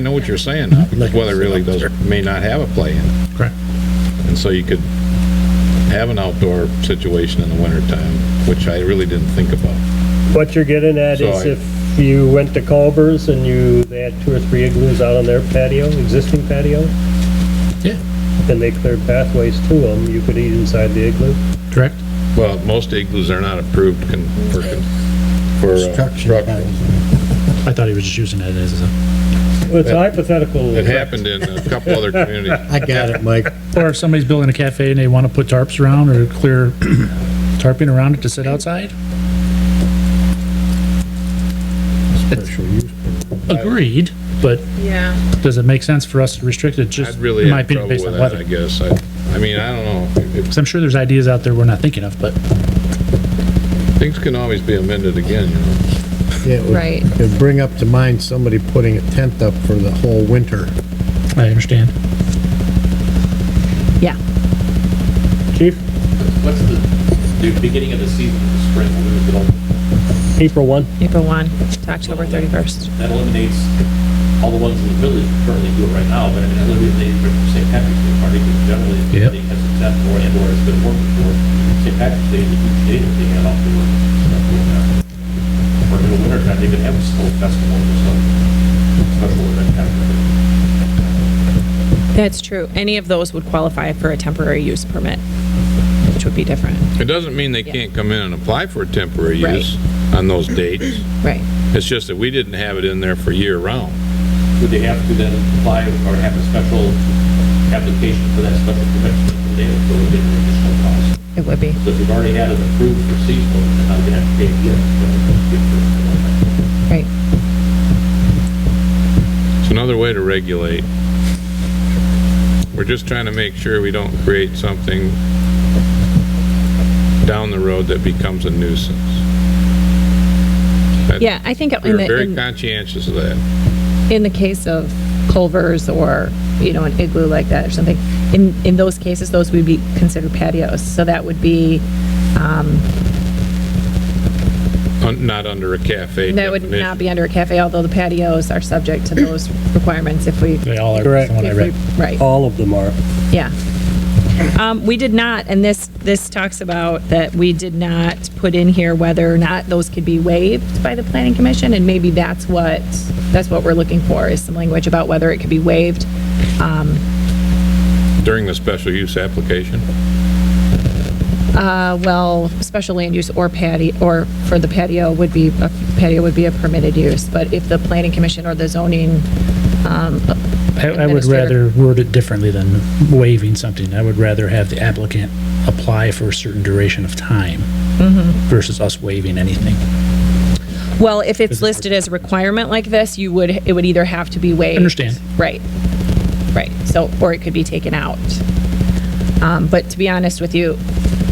I know what you're saying now, because weather really does, may not have a play in it. Correct. And so you could have an outdoor situation in the wintertime, which I really didn't think about. What you're getting at So is I- if you went to Culvers and you, they had two or three igloos out on their patio, existing patio, Yeah. and they cleared pathways to them, you could eat inside the igloo. Correct? Well, most igloos are not approved con- for, con- for uh, Construction. construction. I thought he was just using that as a, Well, It's a hypothetical. It happened in a couple other communities. I got it, Mike. or if somebody's building a cafe and they want to put tarps around or clear tarping around it to sit outside. Special use. Agreed, but Yeah, does it make sense for us to restrict it I'd just, really in my have trouble opinion, with based on that, weather? I guess. I, I mean, I don't know. If- Because I'm sure there's ideas out there we're not thinking of, but Things can always be amended again, you know. Yeah, it would- Right. It'd bring up to mind somebody putting a tent up for the whole winter. I understand. yeah. Chief, What's the, the beginning of the season, the spring, we would go- April one, April 1 to October 31st. that eliminates all the ones in the village who currently do it right now, but I mean, I literally, they, for St. Patrick's Day party, because generally, Yep. they has accepted more and or has been working for, St. Patrick's Day is a huge day that they have out there. stuff going on. Or in the winter time, they could have a snow festival or some special event kind of thing. That's true. Any of those would qualify for a temporary use permit, which would be different. It doesn't mean they can't Yeah. come in and apply for a temporary Right. use on those dates. Right. It's just that we didn't have it in there for year round. Would they have to then apply or have a special application for that special permit? They would go get an additional cost. It would be. So if you've already had it approved for seasonal, then I'm gonna have to pay again. Right. It's another way to regulate. We're just trying to make sure we don't create something down the road that becomes a nuisance. That- Yeah, I think We in were the, very in, conscientious of that. in the case of Culvers or, you know, an igloo like that or something, in, in those cases, those would be considered patios. So that would be, Un- Not under a cafe that would definition. not be under a cafe, although the patios are subject to those requirements if we, They all are, Correct. from what I if read. we, right. all of them are. Yeah. Um, we did not, and this, this talks about that we did not put in here whether or not those could be waived by the planning commission, and maybe that's what, that's what we're looking for, is some language about whether it could be waived. During the special use application? Uh, well, special land use or patio, or for the patio would be, a patio would be a permitted use, but if the planning commission or the zoning, I, I would Administrator. rather word it differently than waiving something. I would rather have the applicant apply for a certain duration of time Mm-hmm. versus us waiving anything. well, if it's listed as a requirement like this, you would, it would either have to be waived. Understand. Right, right, so, or it could be taken out. Um, but to be honest with you,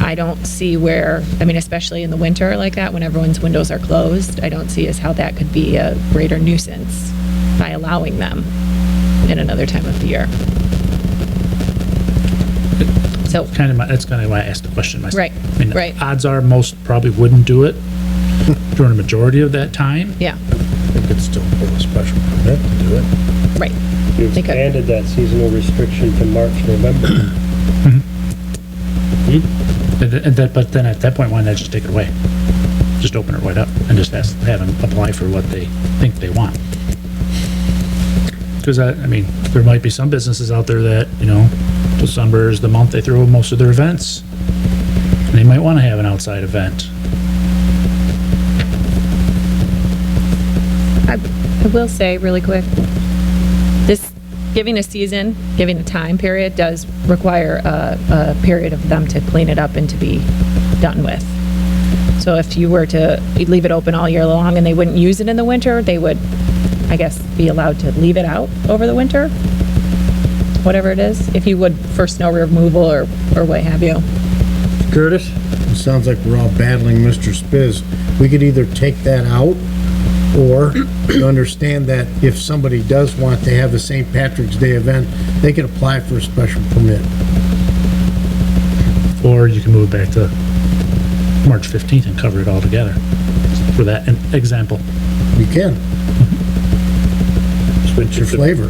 I don't see where, I mean, especially in the winter like that, when everyone's windows are closed, I don't see as how that could be a greater nuisance by allowing them in another time of the year. So, Kind of my, that's kind of why I asked the question myself. Right, I mean, right. Odds are most probably wouldn't do it during a majority of that time. yeah, They could still pull a special permit to do it. right, You They could. expanded that seasonal restriction to March, November. And th- and that, but then at that point, why not just take it away? Just open it right up and just ask, have them apply for what they think they want. Because I, I mean, there might be some businesses out there that, you know, December is the month they throw most of their events. And They might want to have an outside event. I, I will say really quick, this, giving a season, giving a time period does require a, a period of them to clean it up and to be done with. So if you were to leave it open all year long and they wouldn't use it in the winter, they would, I guess, be allowed to leave it out over the winter? Whatever it is, if you would for snow removal or, or what have you. Curtis? It sounds like we're all battling Mr. Spiz. We could either take that out or you understand that if somebody does want to have a St. Patrick's Day event, they could apply for a special permit. Or you can move it back to March 15th and cover it all together for that an example. You can. It's your flavor.